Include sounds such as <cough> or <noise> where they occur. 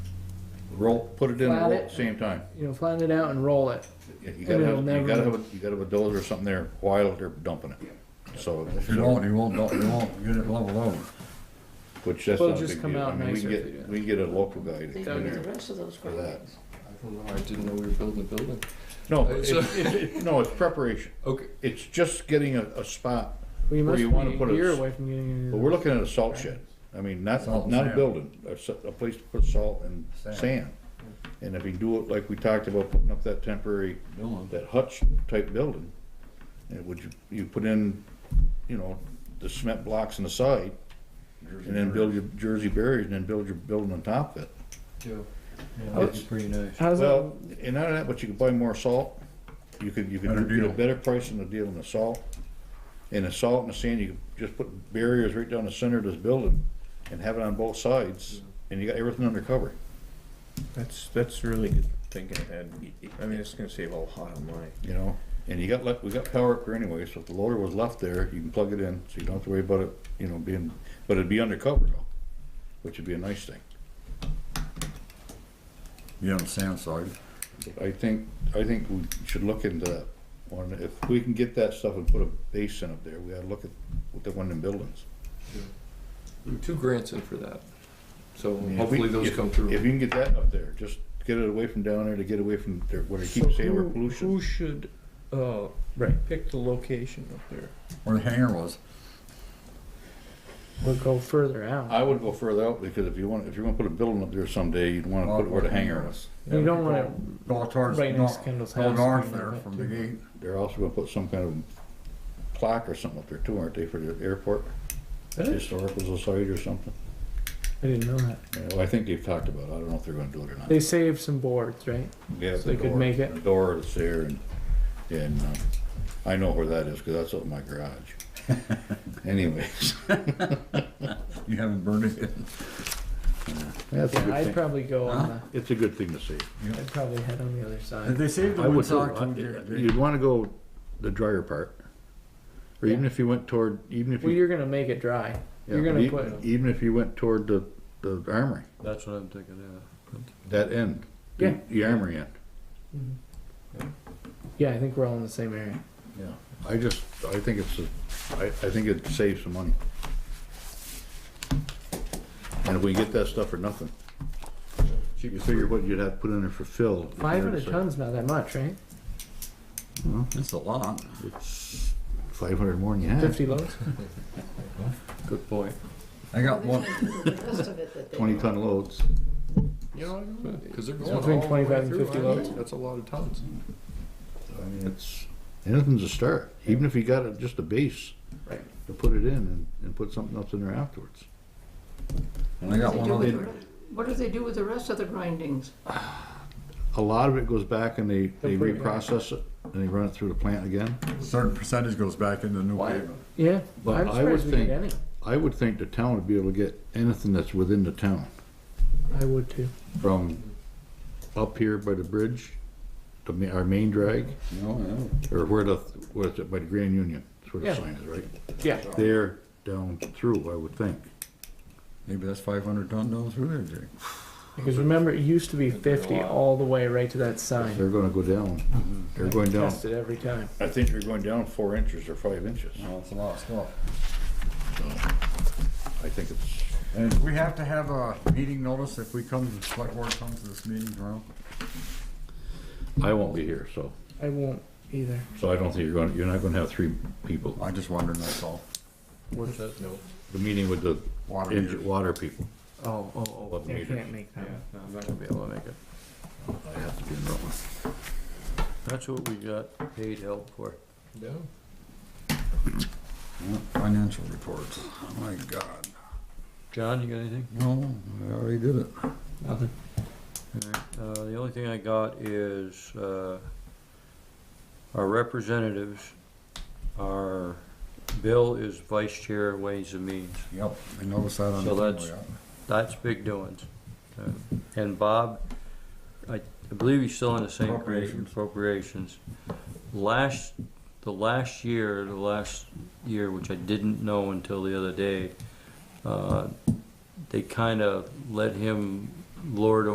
roll, put it in, Flat roll it. at the same time. you know, flatten it out and roll it. You- You And gotta have, it'll you never- gotta have, a- you gotta have a dozer or something there while they're dumping it. So, If you don't, you won't, you won't get it leveled over. which that's It'll not a just big come deal. I out mean, we nicer can if they do get, that. we can get a local guy to come They do the in there rest of those for that. grants. I don't know, I didn't know we were building a building. No, Uh, it's, so- it's- it's- no, it's preparation. Okay, It's just getting a, a spot, Well, you Where must you be wanna put a it year s- away from getting but it. we're looking at a salt shed. I mean, not, Salt and not a sand. building, a, s- a place to put salt and Sand. sand. And if you do it like we talked about, putting up that temporary, Building. that hutch type building, and would you, you put in, you know, the cement blocks on the side, and then build your Jersey barriers, and then build your building on top of it. yeah. Yeah, that'd be pretty nice. How's Well, that? and not only that, but you could buy more salt, you could, you Better could get a deal. better price than the deal on the salt. And the salt and the sand, you could just put barriers right down the center of this building and have it on both sides, and you got everything under cover. That's, that's really good thinking ahead. I mean, it's gonna save a lot of money. you know, and you got, le- we got power up here anyway, so if the loader was left there, you can plug it in, so you don't have to worry about it, you know, being, but it'd be undercover though, which would be a nice thing. You on the sand side. I think, I think we should look into that one, if we can get that stuff and put a basin up there, we gotta look at, what the one in buildings. There were two grants in for that, so I mean, if hopefully we- those if- come If through. you can get that up there, just get it away from down there to get away from their- where they keep saying we're pollution. Who should, uh, pick the location up there? Where the hangar was, We'll go further out. I would go further out, because if you want, if you're gonna put a building up there someday, you'd wanna put it where the hangar is. You don't want it go towards, Right next to north- Kendall's go house. north there from the gate. They're also gonna put some kind of plaque or something up there too, aren't they, for the airport? Really? Historical Society or something. I didn't know that. Yeah, Well, I think they've talked about it. I don't know if they're gonna do it or not. They saved some boards, right? Yeah, so they could make it. The door that's there and, and, um, I know where that is, cause that's up in my garage. <laughs> Anyways, You haven't burned it. that's a Yeah, good I'd thing. probably go on It's a good thing to see. the, I'd probably head on the other side. They saved I would, you'd wanna go the drier part. Or even Yeah. if you went toward, even if Well, you. you're gonna make it dry. yeah, You're gonna e- put, Even if you went toward the, the armory, That's what I'm thinking, that end. the- Yeah. The armory end. yeah, I think we're all in the same area. Yeah, I just, I think it's, a- I, I think it saves some money. And if we get that stuff for nothing, you figure what you'd have put in there for fill. if you Five were to hundred say- tons, not that much, right? It's a lot. It's Five hundred more than you have, Fifty loads? Good point. I got one, The rest of it that they twenty don't. ton loads. yeah. Because they're It's going all the between 25 way and through, 50 aren't loads. they? That's a lot of tons. I mean, it's, anything's a start, even if you got a- just a base. Right. To put it in and, and put something else in there afterwards. and I got They one do with other, the re- What do they do with the rest of the grindings? A lot of it goes back and they, they They'll put it back. reprocess it and they run it through the plant again. certain percentage goes back into new pavement. Yeah, But I'm I surprised would we get any. think- I would think the town would be able to get anything that's within the town. I would too. from up here by the bridge, the, ma- our main drag, No, or where the, where's it, by the Grand Union, that's where the Yeah. sign is, right? Yeah, There, down through, I would think. Maybe that's five hundred ton down through there, Jake. because remember, it used to be fifty all the way right to that sign. They're gonna go down, they're going down. Tested every time. Mm-hmm. I think they're going down four inches or five inches. No, it's a lot of stuff. I think it's, And we have to have a meeting notice if we come, the select board comes to this meeting tomorrow. I won't be here, so, I won't either. so I don't think you're gonna, you're not gonna have three people. I just wondered, that's all. What's that? No. The meeting with the Water engi- meters. water people. Oh, oh, Love I meters. can't make Yeah, that. one. no, I'm not gonna be able to make it. I have to be in that one. That's what we got paid help for. Yeah. Yeah, Financial reports, oh my god. John, you got anything? No, I already did it. Nothing. Uh, the only thing I got is, uh, our representatives, our, Bill is vice chair of Ways and Means. Yep, I noticed that on the. So that's- table, yeah. That's big doings. Uh, And Bob, I I believe he's still in the same grade, Appropriations. appropriations. Last, the last year, the last year, which I didn't know until the other day, uh, they kind of let him lord